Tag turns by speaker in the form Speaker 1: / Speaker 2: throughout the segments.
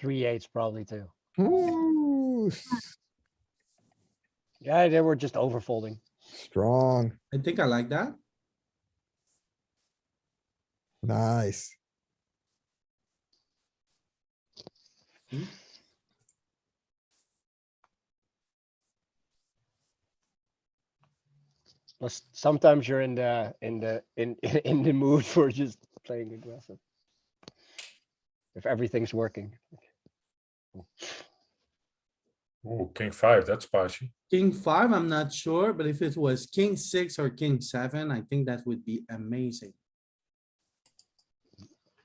Speaker 1: three eights probably too.
Speaker 2: Ooh, s-
Speaker 1: Yeah, they were just overfolding.
Speaker 2: strong,
Speaker 3: I think I like that.
Speaker 2: nice.
Speaker 1: Plus, sometimes you're in the, in the, in, in the mood for just playing aggressive. If everything's working.
Speaker 4: Ooh, king five, that's spicy.
Speaker 3: King five, I'm not sure, but if it was king six or king seven, I think that would be amazing.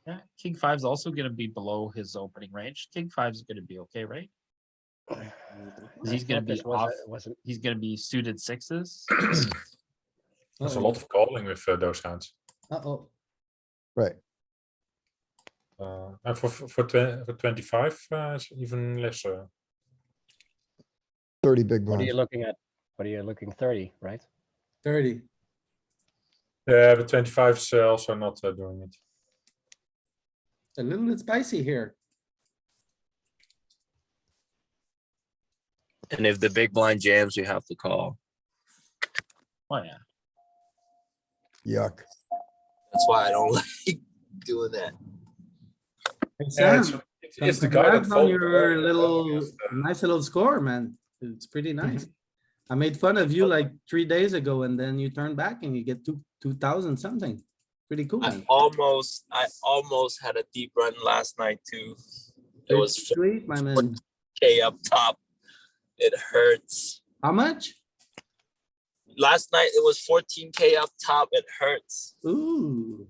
Speaker 5: Yeah, king five's also gonna be below his opening range. King five's gonna be okay, right? 'Cause he's
Speaker 1: I
Speaker 5: gonna
Speaker 1: thought
Speaker 5: be
Speaker 1: this was a-
Speaker 5: off.
Speaker 1: Wasn't,
Speaker 5: He's gonna be suited sixes.
Speaker 4: There's a
Speaker 3: Uh-oh,
Speaker 4: lot of calling with uh, those hands.
Speaker 3: Uh-oh,
Speaker 2: Right,
Speaker 4: Uh, and for for for, tw- for twenty five, uh, it's even less. Uh,
Speaker 2: thirty big
Speaker 1: what are
Speaker 2: blinds.
Speaker 1: you looking at? What are you looking, thirty, right?
Speaker 3: thirty.
Speaker 4: yeah, but twenty five is uh, also not uh, doing it.
Speaker 3: A little bit spicy here.
Speaker 6: And if the big blind jams, you have to call.
Speaker 5: Oh, yeah.
Speaker 2: Yuck.
Speaker 6: That's why I don't like doing that.
Speaker 4: Yeah, it's,
Speaker 3: Sam,
Speaker 4: it's, it's the guy that
Speaker 3: congrats on
Speaker 4: folded
Speaker 3: your
Speaker 4: earlier,
Speaker 3: little,
Speaker 4: yes, uh, Mm-hmm.
Speaker 3: nice little score, man. It's pretty nice. I made fun of you like three days ago and then you turn back and you get two, two thousand something. Pretty cool.
Speaker 6: I
Speaker 3: man.
Speaker 6: almost, I almost had a deep run last night too. It was
Speaker 3: Sweet, my man.
Speaker 6: K up top. It hurts.
Speaker 3: How much?
Speaker 6: Last night it was 14K up top. It hurts.
Speaker 3: Ooh.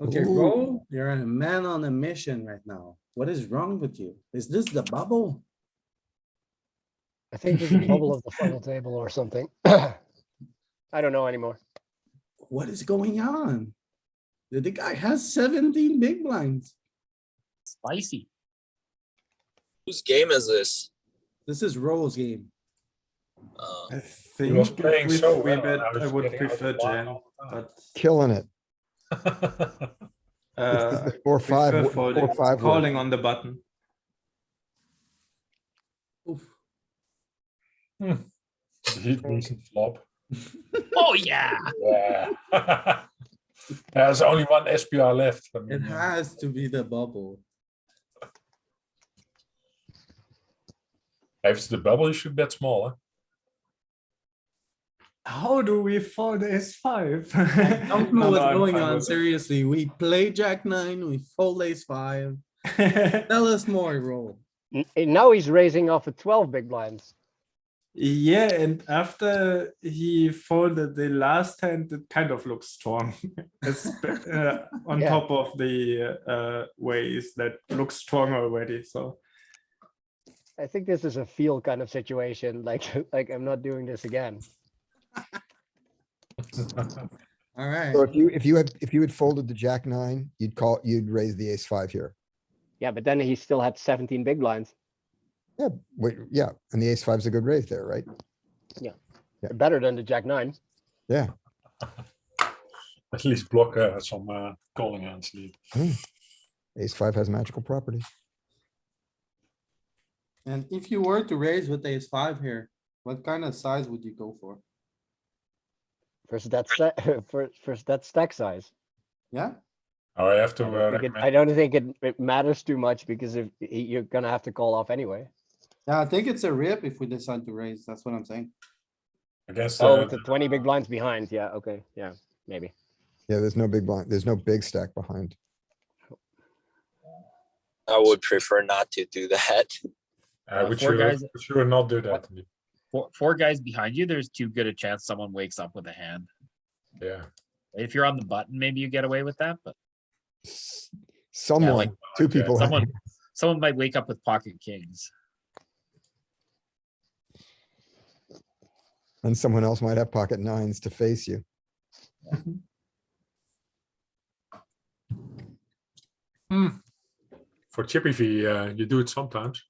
Speaker 3: Okay,
Speaker 2: Ooh.
Speaker 3: bro, you're a man on a mission right now. What is wrong with you? Is this the bubble?
Speaker 1: I think this is the bubble of the final table or something. I don't know anymore.
Speaker 3: What is going on? The the guy has seventeen big blinds.
Speaker 5: Spicy.
Speaker 6: Whose game is this?
Speaker 3: This is Roll's game.
Speaker 6: Uh,
Speaker 7: I
Speaker 4: he
Speaker 7: think
Speaker 4: was
Speaker 7: if
Speaker 4: playing
Speaker 7: we
Speaker 4: so
Speaker 7: three
Speaker 4: well.
Speaker 7: bet,
Speaker 4: and was
Speaker 7: I would
Speaker 4: getting out of
Speaker 7: prefer
Speaker 4: line Oh,
Speaker 7: jam,
Speaker 4: all the time.
Speaker 7: but
Speaker 2: Killing it. This
Speaker 7: uh,
Speaker 2: is the Four,
Speaker 7: I
Speaker 2: five,
Speaker 7: prefer
Speaker 2: wo-
Speaker 7: folding,
Speaker 2: four, five. wood.
Speaker 7: calling on the button.
Speaker 3: Oof.
Speaker 4: he doesn't flop.
Speaker 5: Oh, yeah.
Speaker 4: Yeah. There's only one SPR left. I
Speaker 3: It
Speaker 4: mean, uh,
Speaker 3: has to be the bubble.
Speaker 4: If it's the bubble, you should bet small. Huh?
Speaker 7: How do we fold ace five?
Speaker 3: I don't know what's going on. Seriously, we play jack nine, we fold ace five. Tell us more, Roll.
Speaker 1: N- And now he's raising off of twelve big blinds.
Speaker 7: Yeah, and after he folded the last hand, it kind of looks strong. Espe- uh, on
Speaker 1: Yeah.
Speaker 7: top of the uh, ways that look strong already. So
Speaker 1: I think this is a feel kind of situation, like, like I'm not doing this again.
Speaker 3: Alright,
Speaker 2: So if you, if you had, if you had folded the jack nine, you'd call, you'd raise the ace five here.
Speaker 1: Yeah, but then he still had seventeen big blinds.
Speaker 2: Yeah, wait, yeah, and the ace five's a good raise there, right?
Speaker 1: better than the jack nine.
Speaker 2: Yeah,
Speaker 4: At least block uh, some uh, calling hands. Lee.
Speaker 2: ace five has magical properties.
Speaker 3: and if you were to raise with ace five here, what kind of size would you go for?
Speaker 1: Versus that stack, versus that stack size.
Speaker 3: Yeah?
Speaker 4: Oh, I have to
Speaker 1: I
Speaker 4: uh,
Speaker 1: don't think it-
Speaker 4: recommend
Speaker 1: I don't think it, it matters too much because if y- you're gonna have to call off anyway.
Speaker 3: Yeah, I think it's a rip if we decide to raise, that's what I'm saying.
Speaker 4: against
Speaker 1: Oh,
Speaker 4: uh,
Speaker 1: with the twenty big blinds behind. Yeah, okay, yeah, maybe.
Speaker 2: Yeah, there's no big blind, there's no big stack behind.
Speaker 6: I would prefer not to do that.
Speaker 4: Uh,
Speaker 5: Uh,
Speaker 4: would
Speaker 5: four
Speaker 4: you,
Speaker 5: guys-
Speaker 4: would you not do that? Lee?
Speaker 5: Four, four guys behind you, there's too good a chance someone wakes up with a hand.
Speaker 4: Yeah.
Speaker 5: If you're on the button, maybe you get away with that, but
Speaker 2: S- Someone, two
Speaker 4: okay,
Speaker 2: people.
Speaker 5: someone, someone might wake up with pocket kings.
Speaker 2: And someone else might have pocket nines to face you.
Speaker 4: For Chippy V, uh, you do it sometimes.